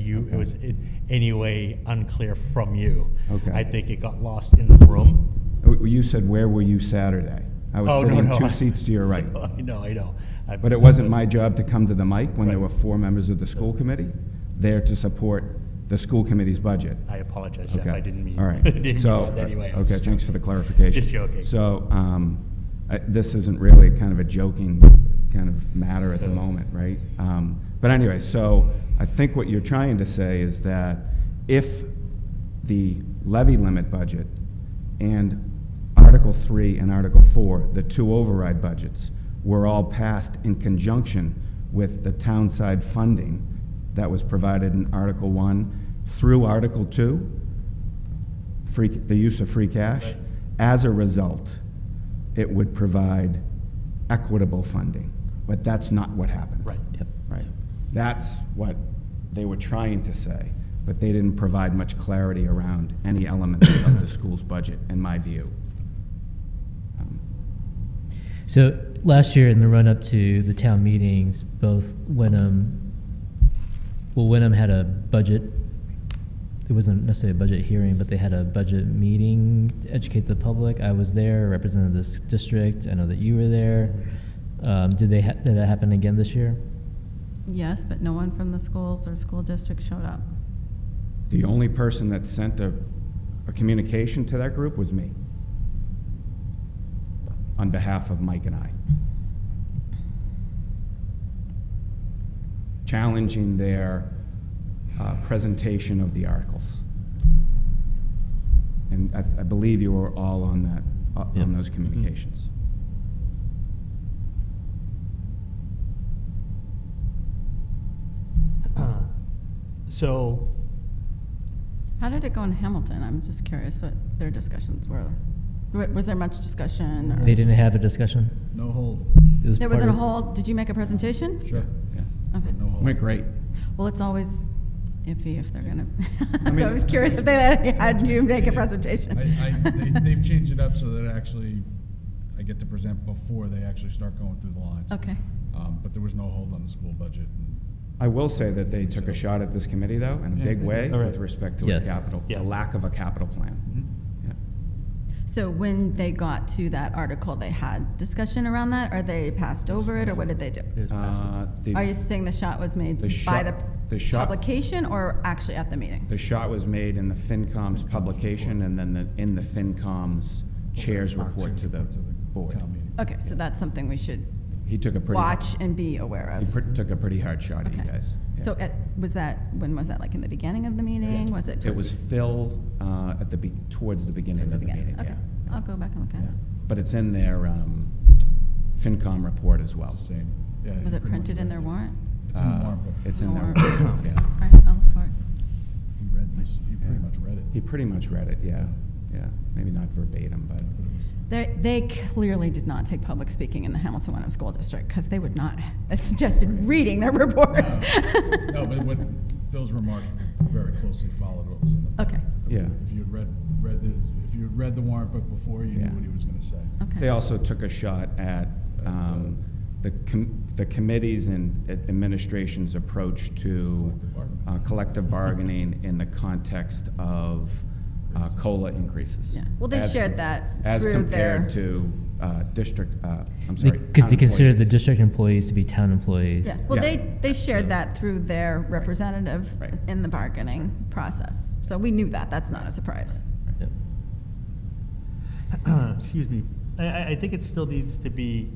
you, it was in any way unclear from you. Okay. I think it got lost in the room. Oh, You said, where were you Saturday? I Oh, was no, sitting no, I- uh, two seats to your right. So, I know, I know. I- But it wasn't my job to come to the mic when there Right. were four members of the school committee there to support the school committee's budget. I apologize, Jeff, Okay. I didn't mean. All I right. Didn't So, mean that anyway. I was okay, just thanks for joking. the clarification. Just joking. So, um, I- this isn't really kind of a joking kind of matter at the Yeah. moment, right? Um, But anyway, so I think what you're trying to say is that if the levy limit budget and Article 3 and Article 4, the two override budgets, were all passed in conjunction with the townside funding that was provided in Article 1 through Article 2, free, the use of free cash. Right. As a result, it would provide equitable funding, but that's not what happened. Right. Right. That's what they were trying to say, but they didn't provide much clarity around any elements of the school's budget, in my view. Um, So last year, in the run-up to the town meetings, both Wenham, well, Wenham had a budget. It wasn't necessarily a budget hearing, but they had a budget meeting to educate the public. I was there, represented this district. I know that you were there. Um, did they ha- did that happen again this year? Yes, but no one from the schools or school district showed up. The only person that sent a, a communication to that group was me, on behalf of Mike and I. Challenging their uh, presentation of the articles. And I, I believe you were all on that, uh, Yep. on those communications. So, How did it go in Hamilton? I'm just curious what their discussions were. Wa- Was there much discussion? or- They didn't have a discussion. No hold. It was There part wasn't a of- whole, did you make a presentation? Sure. Yeah. Okay. No hold. Went great. Well, it's always iffy if they're gonna, mean- so I was curious if they had you make a I, presentation. I, they, they've changed it up so that actually I get to present before they actually start going through the lines. Okay. Um, but there was no hold on the school budget. and- I will say that they took a shot at this committee, though, in a Yeah, big they way did. All right. with respect to its Yes. capital, Yeah. the lack of a capital plan. Yeah. So when they got to that article, they had discussion around that, or they passed over it, or what did they do? Uh, the- Are you saying the shot was made The by shot- the the shot- publication or actually at the meeting? The shot was made in the FinCom's publication and then the, in the FinCom's chair's report to the board. Town meeting. Okay, so that's something we should He took a pretty, watch and be aware he of. pr- took a pretty hard shot at you Okay. guys. Yeah. So uh, at- was that, when was that, like in the beginning of the meeting? Was it It towards was Phil, uh, at the, be- towards the beginning towards of the the meeting, beginning? yeah. Okay, I'll go back and look at Yeah. it. But it's in their, um, FinCom report as well. It's the same. Yeah, Was it pretty much printed in their right. warrant? It's in the Uh, warrant book. It's in their, Warrant. yeah. All right, I'll look for it. He read this, he pretty Yeah. much read it. He pretty much read it, yeah, yeah. Maybe not verbatim, but. But it was- They, they clearly did not take public speaking in the Hamilton Wenham School District because they would not have suggested reading their reports. No, but what Phil's remarks very closely followed what was in the. Okay, Yeah. If you had read, read the, if you had read the warrant book before, you Yeah. knew what he was gonna say. okay. They also took a shot at um, the com- the committees and ad- administration's approach to Collective bargaining. uh, collective bargaining in the context of uh, COLA increases. Yeah. Well, they As- shared that As through compared their- to uh, district, uh, I'm sorry. Because they town considered the employees. district employees to be town employees. Yeah, well, Yeah. they, they shared that through their representative Right. in the bargaining process. So we knew that, that's not a surprise. Yep. excuse me, I- I, I think it still needs to be,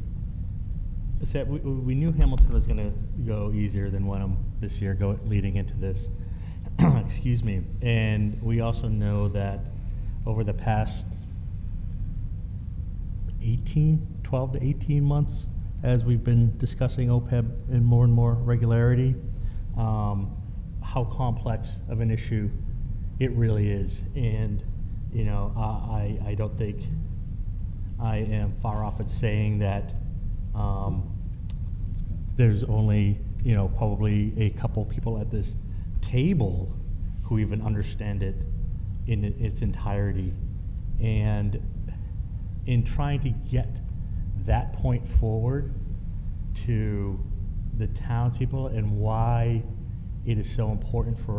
is that we, we knew Hamilton was gonna go easier than Wenham this year, go, leading into this. Excuse me, and we also know that over the past 18, 12 to 18 months, as we've been discussing OPEB in more and more regularity, um, how complex of an issue it really is. And, you know, I, I I don't think I am far off at saying that um, there's only, you know, probably a couple people at this table who even understand it in its entirety. And in trying to get that point forward to the townspeople and why it is so important for us.